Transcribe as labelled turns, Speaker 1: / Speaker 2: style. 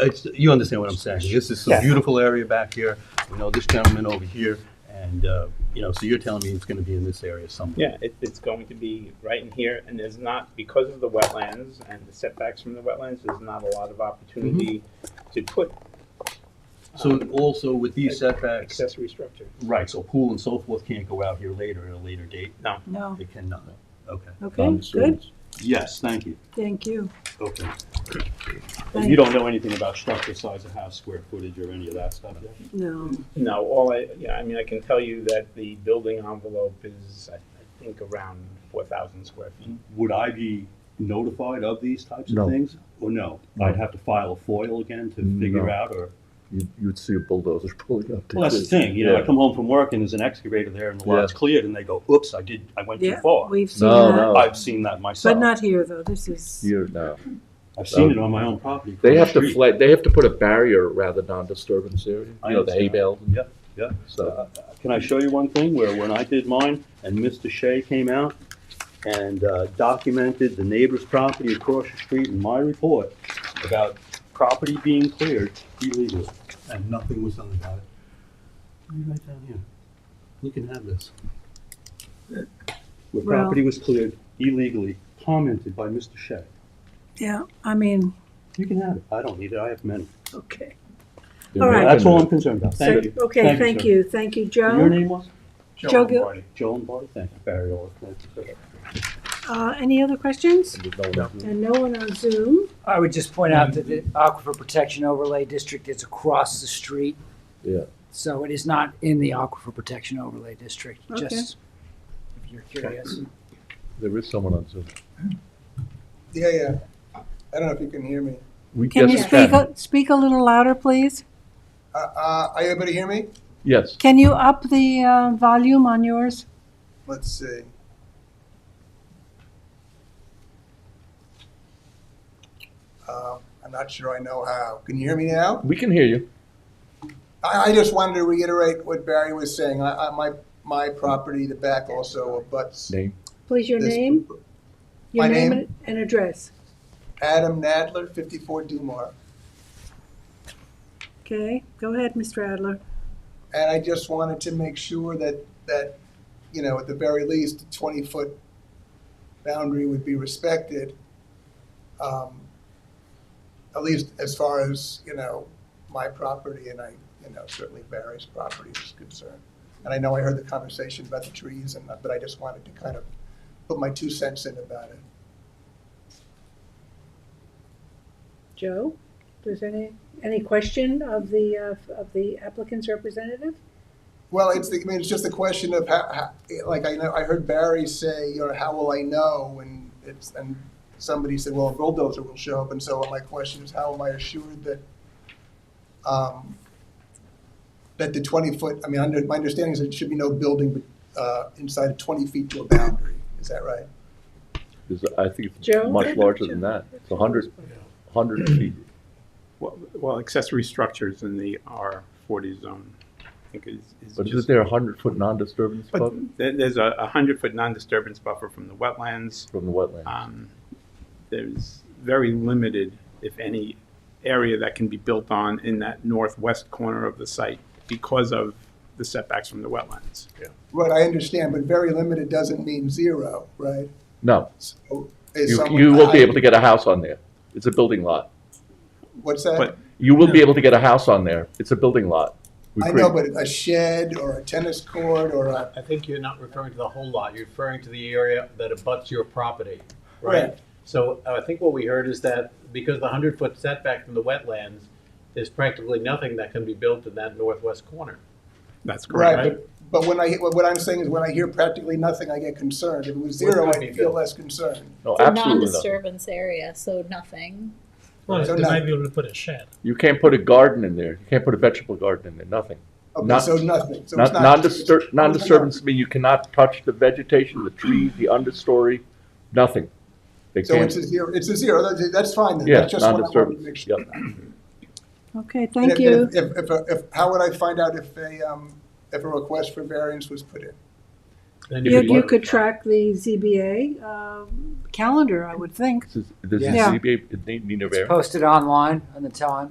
Speaker 1: it's, you understand what I'm saying. This is a
Speaker 2: Yeah.
Speaker 1: beautiful area back here, you know, this gentleman over here, and, uh, you know, so you're telling me it's gonna be in this area somewhere?
Speaker 3: Yeah, it, it's going to be right in here, and there's not, because of the wetlands and the setbacks from the wetlands, there's not a lot of opportunity
Speaker 4: Mm-hmm.
Speaker 3: to put
Speaker 1: So also with these setbacks,
Speaker 3: accessory structure.
Speaker 1: right, so pool and so forth can't go out here later at a later date?
Speaker 5: No,
Speaker 1: They cannot, okay.
Speaker 5: okay, good,
Speaker 1: Yes, thank you.
Speaker 5: thank you.
Speaker 1: Okay.
Speaker 5: Thank-
Speaker 1: You don't know anything about structure size of house, square footage, or any of that stuff yet?
Speaker 5: No,
Speaker 3: No, all I, yeah, I mean, I can tell you that the building envelope is, I I think, around four thousand square feet.
Speaker 1: Would I be notified of these types of
Speaker 4: No.
Speaker 1: things? Or no?
Speaker 4: No.
Speaker 1: I'd have to file a foil again to figure
Speaker 4: No.
Speaker 1: out, or?
Speaker 4: You, you'd see a bulldozer pulling up. to
Speaker 1: Well, that's the
Speaker 4: this.
Speaker 1: thing, you know, I
Speaker 4: Yeah.
Speaker 1: come home from work and there's an excavator there and the lot's cleared and they go, oops, I did, I went too
Speaker 5: yeah,
Speaker 1: far.
Speaker 5: we've seen
Speaker 4: No,
Speaker 5: that,
Speaker 4: no.
Speaker 1: I've seen that myself.
Speaker 5: but not here, though, this is,
Speaker 4: Here now.
Speaker 1: I've seen it on my own property.
Speaker 2: They
Speaker 1: across
Speaker 2: have
Speaker 1: the
Speaker 2: to
Speaker 1: street.
Speaker 2: flag, they have to put a barrier around the non-disturbance area,
Speaker 1: I
Speaker 2: you know, the hay
Speaker 1: understand.
Speaker 2: bales. and-
Speaker 1: Yep, yep.
Speaker 2: So,
Speaker 1: Uh, Can I show you one thing where when I did mine and Mr. Shea came out and uh, documented the neighbor's property across the street in my report about property being cleared illegally? And nothing was done about it. Let me write down here. We can have this. Where
Speaker 5: Well-
Speaker 1: property was cleared illegally, commented by Mr. Shea.
Speaker 5: yeah, I mean,
Speaker 1: You can have it. I don't need it. I have many.
Speaker 5: okay.
Speaker 2: they're
Speaker 5: All right.
Speaker 1: That's all I'm
Speaker 2: making
Speaker 1: concerned about.
Speaker 5: So,
Speaker 1: Thank you.
Speaker 5: okay, thank
Speaker 1: sir.
Speaker 5: you, thank you,
Speaker 1: Your
Speaker 5: Joe.
Speaker 1: name was?
Speaker 5: Joe Gil,
Speaker 1: Joe Lombardi. Thank you, Barry Orr. Thank you, sir.
Speaker 5: uh, any other questions?
Speaker 2: it- no, no.
Speaker 5: And no one on Zoom,
Speaker 6: I would just point out that the Aquifer Protection Overlay District is across the street.
Speaker 2: Yeah.
Speaker 6: So it is not in the Aquifer Protection Overlay District,
Speaker 5: Okay.
Speaker 6: just if you're curious.
Speaker 4: There is someone on Zoom.
Speaker 7: Yeah, yeah. I don't know if you can hear me.
Speaker 4: We-
Speaker 5: can
Speaker 4: yes,
Speaker 5: you
Speaker 4: we
Speaker 5: speak,
Speaker 4: can.
Speaker 5: a- speak a little louder, please?
Speaker 7: Uh, uh, are you able to hear me?
Speaker 4: Yes.
Speaker 5: Can you up the, uh, volume on yours?
Speaker 7: Let's see. Uh, I'm not sure I know how. Can you hear me now?
Speaker 4: We can hear you.
Speaker 7: I, I just wanted to reiterate what Barry was saying. I, I, my, my property, the back also abuts.
Speaker 4: Name.
Speaker 5: Please, your
Speaker 7: this-
Speaker 5: name, your
Speaker 7: My
Speaker 5: name
Speaker 7: name?
Speaker 5: and- and address,
Speaker 7: Adam Nadler, 54 Dumar.
Speaker 5: okay? Go ahead, Mr. Adler.
Speaker 7: And I just wanted to make sure that, that, you know, at the very least, a twenty-foot boundary would be respected. um, At least as far as, you know, my property and I, you know, certainly Barry's property is concerned. And I know I heard the conversation about the trees and, but I just wanted to kind of put my two cents in about it.
Speaker 5: Joe, does any, any question of the, uh, of the applicant's representative?
Speaker 7: Well, it's the, I mean, it's just a question of how, how, like I know I heard Barry say, you know, how will I know? And it's and somebody said, well, a bulldozer will show up. And so my question is, how am I assured that um, that the twenty foot? I mean, under, my understanding is that it should be no building uh, inside of twenty feet to a boundary. Is that right?
Speaker 4: Is- I think it's
Speaker 5: Joe?
Speaker 4: much larger than that. It's a hundred, hundred feet.
Speaker 3: Well, well, accessory structures in the R forty zone, I think is, is
Speaker 4: But
Speaker 3: just-
Speaker 4: isn't there a hundred foot non-disturbance
Speaker 3: But
Speaker 4: buffer
Speaker 3: there- there's a, a hundred foot non-disturbance buffer from the wetlands.
Speaker 4: from the wetland?
Speaker 1: Ah.
Speaker 3: Um, There's very limited, if any, area that can be built on in that northwest corner of the site because of the setbacks from the wetlands.
Speaker 7: Right, I understand, but very limited doesn't mean zero, right?
Speaker 4: No,
Speaker 7: So is
Speaker 4: you,
Speaker 7: someone-
Speaker 4: you won't be
Speaker 7: I-
Speaker 4: able to get a house on there. It's a building lot.
Speaker 7: What's that?
Speaker 3: But-
Speaker 4: You will be able to get a house on there. It's a building lot. We
Speaker 7: I
Speaker 4: create-
Speaker 7: know, but a shed or a tennis court or a
Speaker 8: I think you're not referring to the whole lot, you're referring to the area that abuts your property,
Speaker 7: Right.
Speaker 8: right? So uh, I think what we heard is that because the hundred foot setback from the wetlands, there's practically nothing that can be built in that northwest corner.
Speaker 3: That's correct.
Speaker 7: Right, but, but when I, what what I'm saying is when I hear practically nothing, I get concerned. If it was
Speaker 8: Well, it
Speaker 7: zero,
Speaker 8: could
Speaker 7: I'd
Speaker 8: be
Speaker 7: feel
Speaker 8: built.
Speaker 7: less concerned.
Speaker 4: No,
Speaker 9: It's a
Speaker 4: absolutely not.
Speaker 9: non-disturbance area, so nothing.
Speaker 7: Right, So they might no- be
Speaker 8: able to put a shed.
Speaker 4: You can't put a garden in there. You can't put a vegetable garden in there, nothing.
Speaker 7: Okay,
Speaker 4: Not-
Speaker 7: so nothing, so it's
Speaker 4: Not,
Speaker 7: not.
Speaker 4: non-disturb,
Speaker 7: it's not-
Speaker 4: non-disturbance mean you cannot touch the vegetation, the trees, the understory, nothing. They
Speaker 7: So
Speaker 4: can't,
Speaker 7: it's a zero, it's a zero, that's, that's fine then.
Speaker 4: yeah,
Speaker 7: That's just what I wanted to make
Speaker 4: non-disturbance,
Speaker 7: sure.
Speaker 4: yep.
Speaker 5: Okay,
Speaker 7: And
Speaker 5: thank
Speaker 7: if-
Speaker 5: you.
Speaker 7: If, if, if- if, how would I find out if a, um, if a request for variance was put in?
Speaker 5: You, you could track the ZBA, um, calendar, I would think.
Speaker 4: This is, this is
Speaker 5: Yeah.
Speaker 4: ZBA, it need, need a
Speaker 6: It's
Speaker 4: variance.
Speaker 6: posted online on the town,